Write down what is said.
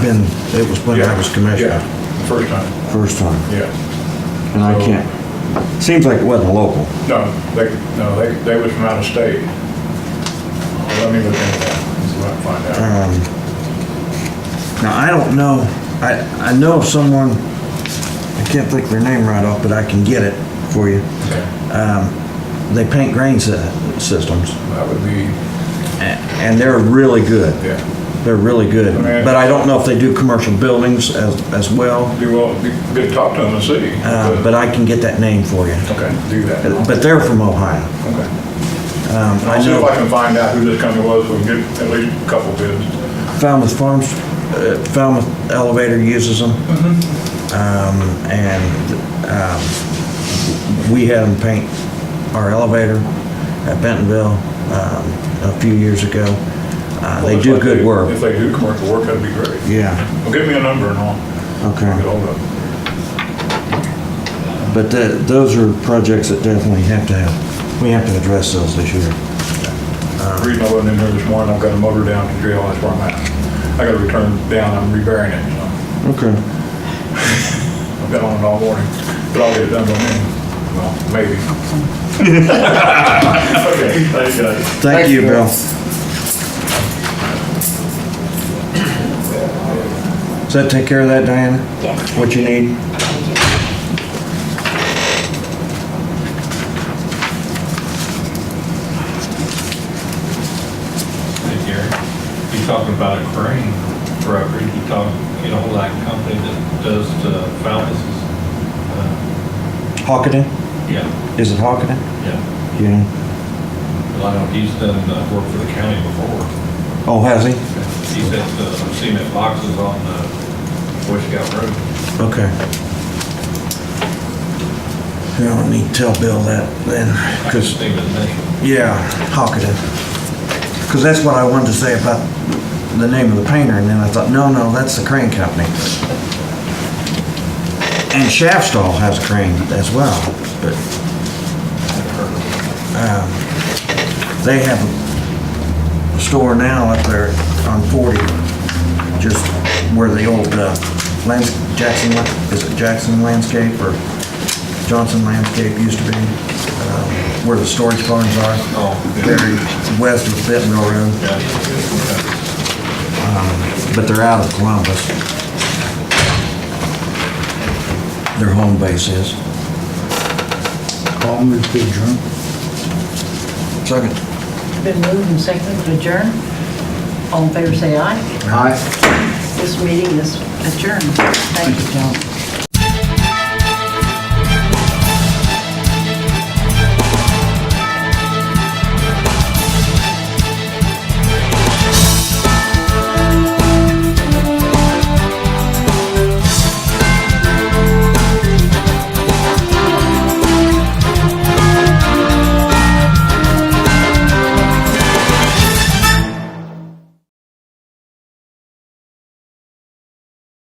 in, it was when I was commissioner, Yeah, First time, first time, yeah. and I can't, seems like it wasn't local. No, they, no, they, they was from out of state. Let me look into that, and see if I can find Um, out. Now, I don't know, I, I know of someone, I can't think of their name right off, but I can get it for you. Okay. They paint grain sy- systems, That would be, a- and they're really good. yeah, They're really good, Okay. but I don't know if they do commercial buildings as, as well, be well, be good to talk to them and see. uh, but I can get that name for you. Okay, do that. Okay. But they're from Ohio. Um, I'll I see if I know can find out who this company was, we can get at least a couple bids. Falmouth Farms, uh, Falmouth Elevator uses them. Um, and, um, we had them paint our elevator at Bentonville, um, a few years ago. Uh, they If do good If work. they do commercial work, that'd be great. Yeah, Well, give me a number and I'll get okay. hold of them. But tha- those are projects that definitely have to have, we have to address those this year. The reason I wasn't in here this morning, I've got a motor down to jail, that's where I'm at. I got to return down, I'm repairing it, so Okay. I've been on it all morning, but I'll get it done by noon. Well, maybe. Okay, thank you guys. Thank you, Bill. Does that take care of that, Diana? Yes. What you need? this year. You talk about a crane brokerage, you talk, you know, like a company that does the fountains. uh, Hockaday? Yeah, Is it Hockaday? yeah. Yeah. Lionel, he's done uh, work for the county before. Oh, has he? He sets uh, cement boxes on the Boy Scout Road. Okay. Yeah, I need to tell Bill that then, I can because, think of his name. yeah, Hockaday. Because that's what I wanted to say about the name of the painter, and then I thought, no, no, that's the crane company. And Shaftstall has a crane as well, but um, they have a store now up there on 40, just where the old uh, lands, Jackson, is it Jackson Landscape or Johnson Landscape used to be, um, where the storage barns are, Oh, yeah. very west of Bentonville Road, yeah. but they're out of Columbus. Their home base is. Call me to adjourn. Second. Been moved and seconded to adjourn. All in favor, say aye. Aye. This meeting is adjourned. Thank you, John.